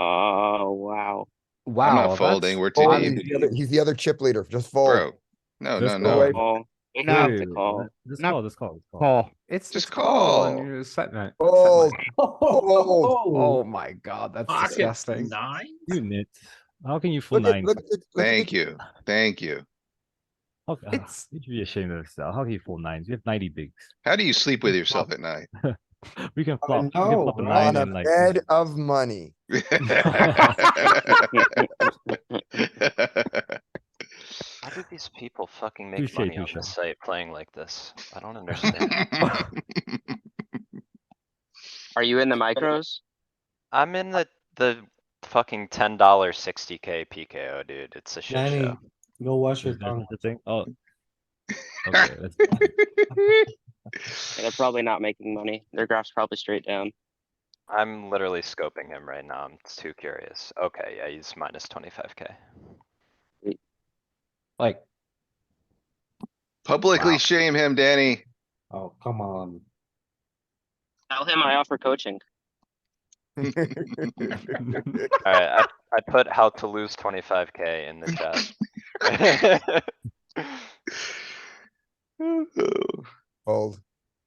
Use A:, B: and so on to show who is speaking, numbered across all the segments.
A: Oh,
B: Wow. that's-
C: folding, we're too
B: oh,
D: Fold
C: deep.
D: is the other- He's the other chip leader, just
C: bro.
D: fold.
C: No, Oh, no,
E: Just
C: no.
D: Oh, away.
A: Call. Enough to
E: Dude,
A: call.
E: Just
A: Not-
E: call, just call, just call.
B: Call. It's
C: Just
B: just call
C: call.
B: and you're set night. set
D: Fold,
B: night.
D: fold.
B: Oh my god, that's
F: Pocket
B: disgusting.
F: nine?
E: You nit. How can you fool
D: Look at-
E: nine?
D: look at- look at the-
C: Thank you, thank you.
E: How, ah,
B: It's-
E: you should be ashamed of yourself. How can you fool nines? You have ninety bigs.
C: How do you sleep with yourself at night?
E: We can
D: I
E: flop. we can
D: know,
E: flop a
D: on
E: nine
D: a
E: and like.
D: bed of money.
G: How do these people fucking
E: Touche,
G: make money on
E: touche.
G: this site playing like this? I don't understand.
A: Are you in the micros?
G: I'm in the, the fucking ten dollar sixty K PKO, dude. It's a shit
H: Danny,
G: show.
H: go wash your
E: Is there
H: tongue.
E: such a thing? Oh. Okay, that's fine.
A: Yeah, They're probably not making money. Their graph's probably straight down.
G: I'm literally scoping him right now. I'm too curious. Okay, yeah, he's minus twenty-five K.
B: Like,
C: Publicly
B: Wow.
C: shame him, Danny.
H: Oh, come on.
A: Tell him I offer coaching.
G: Alright, I, I put how to lose twenty-five K in the chat.
D: Fold.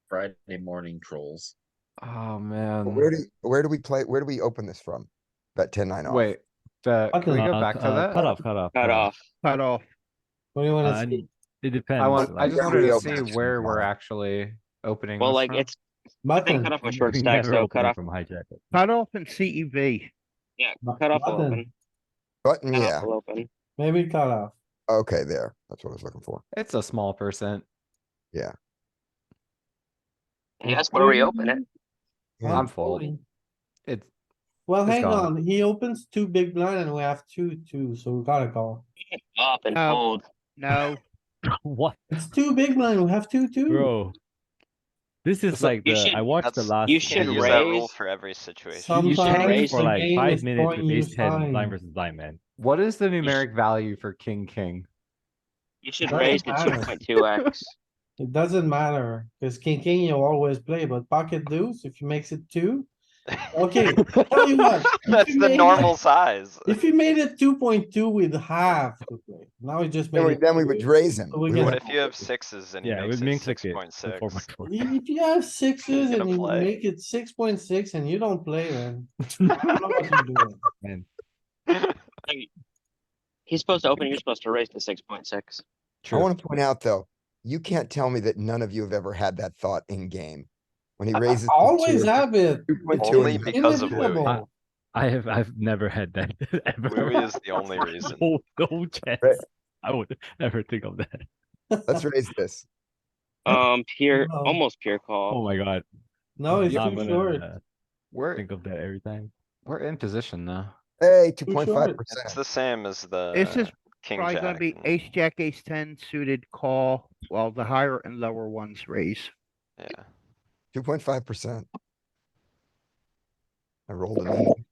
F: Friday morning trolls.
B: oh
D: But
E: Um,
B: man.
D: Where do, where do we play, where do we open this from? Bet ten nine off.
B: Wait, the, can we
E: Uh,
B: go back to
E: uh,
B: that?
E: Cut off, cut off.
A: Cut off.
H: Cut off. What do you
E: Uh,
H: wanna see?
E: It depends.
B: I want, I
E: like,
B: just
D: Yeah,
B: wanted
D: we
B: to
D: open
B: see
D: it.
B: where we're actually opening.
A: Well,
B: this
A: like
B: from.
A: it's, I think
H: Button.
A: cut off with
E: we
A: short stacks
E: never
A: though.
E: open
A: Cut
E: it
A: off,
E: From hijack. it.
I: Cut off and E CEV.
H: bu-
A: cut off will
H: button.
A: open.
D: Button,
A: Cut
D: yeah,
A: off will open.
H: Maybe cut off.
D: okay, there, that's what I was looking for.
B: It's a small percent.
A: He has to reopen it.
D: Yeah.
B: I'm folding. It's,
H: Well,
B: It's
H: hang
B: gone.
H: on, he opens two big blind and we have two, two, so we gotta call.
A: Up and
B: Uh,
I: Um,
A: fold.
I: No,
E: What,
H: It's two big blind, we have two, two.
E: bro? This is
A: like,
E: like
A: you
E: the,
A: should-
E: I watched the
G: that's-
E: last.
A: you
E: one
G: Should
A: should
E: where
G: use that rule
A: raise-
G: for every situation.
E: You
H: Sometimes
E: can raise for
H: the
E: like
H: game
E: five
H: is
E: minutes
H: throwing
E: with
H: you
E: ace ten, blind
H: signs.
E: versus blind man.
B: what is the
A: sh-
B: numeric value for king, king?
A: You should
H: Doesn't
A: raise the two
H: matter.
A: point two X.
H: It doesn't matter, cuz king, king, you always play, but pocket deuce, if he makes it two. Okay, tell you what,
G: That's the
H: made-
G: normal size.
H: if he made it two point two, we'd have to play. Now he just
D: Then
H: made
D: we,
H: it.
D: then we
H: three.
D: would raise him.
H: So we
D: We
H: get-
G: What
D: wouldn't-
G: if you have sixes and he
E: Yeah, it
G: makes
E: would
G: it
E: make six
G: six
E: it.
G: point
E: the
G: six?
E: 4.4.
H: If you have sixes
G: gonna
H: and you
G: play.
H: make it six point six and you don't play, then. I don't know what you're doing.
A: He's supposed to open, you're supposed to raise to six point six.
D: I
B: True.
D: wanna point out, though, you can't tell me that none of you have ever had that thought in game. When he
H: I- I
D: raises. to
H: Always
D: two,
H: have it.
D: two point two
G: Only
D: and you-
G: because of Louis.
H: Inevitable.
E: I have, I've never had that
G: Louis
E: ever.
G: is the only reason.
E: No, no chance. I would never think of that.
D: Let's raise this.
A: Um, pure,
H: No.
A: almost pure
E: Oh
A: call.
E: my god.
H: No, it's
E: I'm
H: too
E: gonna
H: short.
E: uh,
B: We're,
E: Think of that every time.
B: we're in position though.
D: Hey, two
H: Too
D: point
H: short.
D: five
G: It's
D: percent.
G: the same as the.
I: this is
G: king
I: probably gonna
G: jack
I: be
G: and-
I: ace, jack, ace ten suited call, while the higher and lower ones raise.
G: Yeah.
D: Two point five percent. I rolled a nine.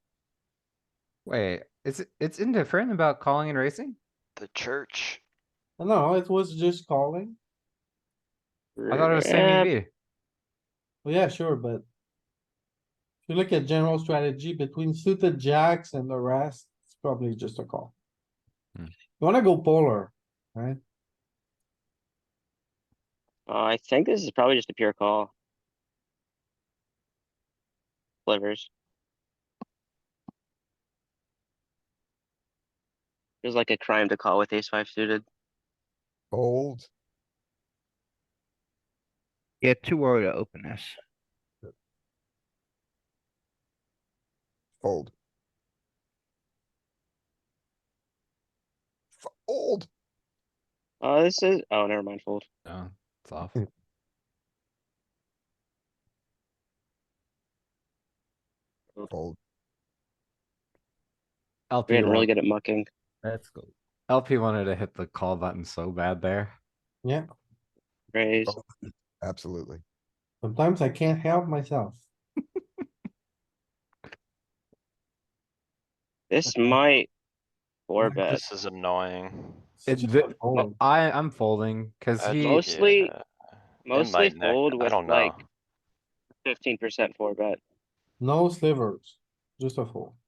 B: Wait, it's, it's indifferent about calling and racing?
G: The church.
H: No, it was just calling.
B: I thought it was same EV.
H: Well, yeah, sure, but. If you look at general strategy between suited jacks and the rest, it's probably just a call.
E: Hmm.
H: You wanna go polar, right?
A: Uh, I think this is probably just a pure call. Slivers. Feels like a crime to call with ace five suited.
D: Fold.
I: Yeah, too early to open this.
D: Fold. Fold.
A: Oh, this is, oh, never mind, fold.
B: No, it's off.
D: Fold.
A: We're
B: LP,
A: getting really
B: wa-
A: good at mucking.
E: Let's go.
B: LP wanted to hit the call button so bad there.
A: Raise.
D: Absolutely.
H: Sometimes I can't help myself.
A: This might four
H: Like
A: bet.
G: This is annoying.
H: It's
B: It,
H: just
B: the-
H: a fold.
B: I, I'm folding, cause
G: Uh,
B: he.
A: Mostly-
G: yeah, it
A: Mostly
G: might neck-
A: fold
G: I
A: with
G: don't know.
A: like fifteen percent four bet.
H: No slivers, just a fold.